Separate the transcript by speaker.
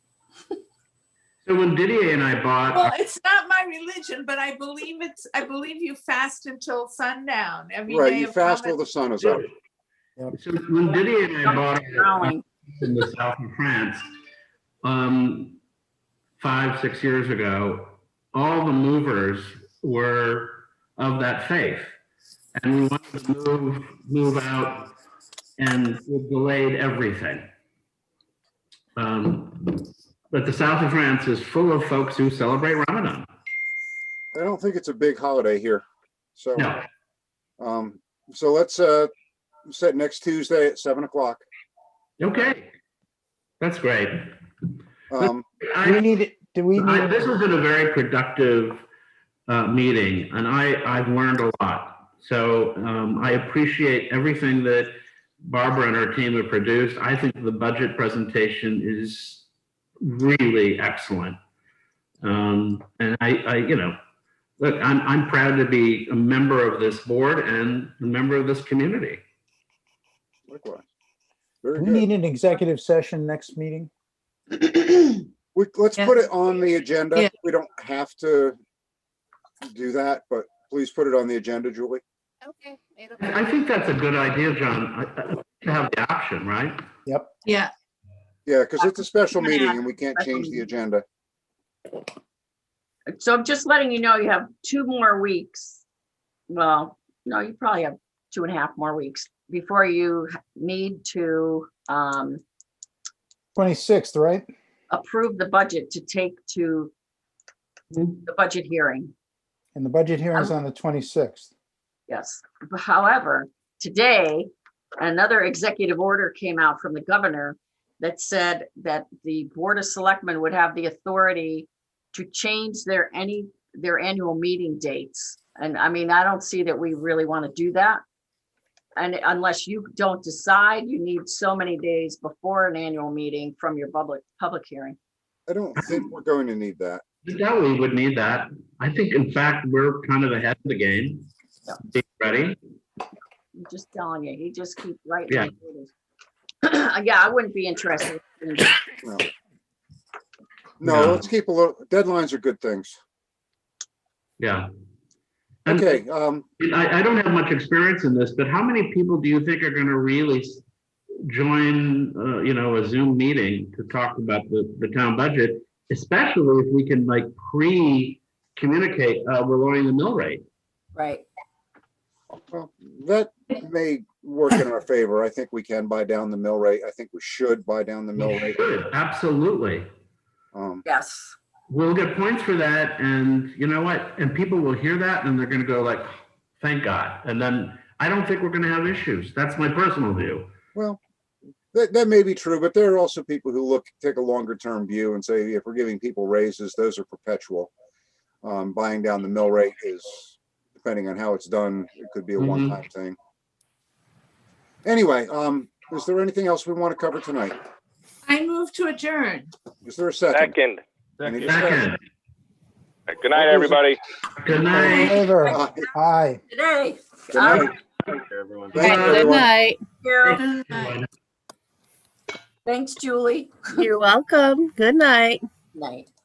Speaker 1: So when Didier and I
Speaker 2: Well,
Speaker 1: bought,
Speaker 2: it's not my religion, but I believe it's, I believe you fast until sundown every
Speaker 3: Right,
Speaker 2: day
Speaker 3: you
Speaker 2: of
Speaker 3: fast till
Speaker 2: Ramadan.
Speaker 3: the sun is up.
Speaker 1: so when Didier and I bought our house
Speaker 4: growing.
Speaker 1: in the south of France, um, five, six years ago, all the movers were of that faith. And we wanted to move, move out and we delayed everything. Um, but the south of France is full of folks who celebrate Ramadan.
Speaker 3: I don't think it's a big holiday here. So,
Speaker 1: No,
Speaker 3: um, so let's, uh, set next Tuesday at seven o'clock.
Speaker 1: okay. That's great.
Speaker 3: Um,
Speaker 4: Do we
Speaker 1: I,
Speaker 4: need, it? do we
Speaker 1: I,
Speaker 4: need,
Speaker 1: this has been a very productive uh, meeting, and I, I've learned a lot. So um, I appreciate everything that Barbara and her team have produced. I think the budget presentation is really excellent. Um, and I, I, you know, look, I'm, I'm proud to be a member of this board and a member of this community.
Speaker 3: likewise.
Speaker 4: do
Speaker 3: Very
Speaker 4: we
Speaker 3: good.
Speaker 4: need an executive session next meeting?
Speaker 3: We, let's put
Speaker 5: Yes.
Speaker 3: it on the agenda.
Speaker 5: Yeah.
Speaker 3: We don't have to do that, but please put it on the agenda, Julie.
Speaker 5: Okay. it'll be-
Speaker 1: I I think that's a good idea, John, I- I- to have the option, right?
Speaker 5: Yeah,
Speaker 3: Yeah, because it's a special
Speaker 6: Yeah.
Speaker 3: meeting and we can't change the agenda.
Speaker 6: So I'm just letting you know, you have two more weeks. Well, no, you probably have two and a half more weeks before you need to um,
Speaker 4: 26th, right?
Speaker 6: approve the budget to take to the budget hearing.
Speaker 4: And the budget hearing's
Speaker 3: Um,
Speaker 4: on the 26th.
Speaker 6: Yes. However, today, another executive order came out from the governor that said that the Board of Selectmen would have the authority to change their any, their annual meeting dates. And I mean, I don't see that we really want to do that. And unless you don't decide, you need so many days before an annual meeting from your public, public hearing.
Speaker 3: I don't think we're going to need that.
Speaker 1: Yeah, we would need that. I think, in fact, we're kind of ahead of the game.
Speaker 6: Yeah.
Speaker 1: Be ready.
Speaker 6: I'm just telling you, he just keeps writing.
Speaker 1: Yeah.
Speaker 6: orders. Yeah, I wouldn't be interested in
Speaker 3: No.
Speaker 1: No.
Speaker 3: No, let's keep a little, deadlines are good things.
Speaker 1: Yeah. And
Speaker 3: Okay, um,
Speaker 1: I, I don't have much experience in this, but how many people do you think are going to really s- join, uh, you know, a Zoom meeting to talk about the, the town budget? Especially if we can like pre-communicate, uh, we're lowering the mill rate.
Speaker 6: Right.
Speaker 3: well, that may work in our favor. I think we can buy down the mill rate. I think we should buy down the mill
Speaker 1: We
Speaker 3: rate.
Speaker 1: should, Absolutely.
Speaker 3: Um,
Speaker 6: Yes.
Speaker 1: We'll get points for that and you know what? And people will hear that and they're gonna go like, thank God. And then I don't think we're gonna have issues. That's my personal view.
Speaker 3: Well, that, that may be true, but there are also people who look, take a longer term view and say, if we're giving people raises, those are perpetual. Um, buying down the mill rate is, depending on how it's done, it could be a
Speaker 1: Mhm.
Speaker 3: one time thing. Anyway, um, is there anything else we want to cover tonight?
Speaker 2: I move to adjourn.
Speaker 3: Is there a second?
Speaker 7: Second.
Speaker 3: Any discussion?
Speaker 1: Second,
Speaker 7: Good night, everybody.
Speaker 1: good
Speaker 4: All in
Speaker 1: night.
Speaker 4: favor?
Speaker 3: Aye.
Speaker 4: Aye.
Speaker 6: Today.
Speaker 3: Good night. Thank you,
Speaker 5: good
Speaker 3: everyone.
Speaker 5: night.
Speaker 6: Carol.
Speaker 2: Good night.
Speaker 6: Thanks, Julie.
Speaker 5: You're welcome. Good night.
Speaker 6: Night.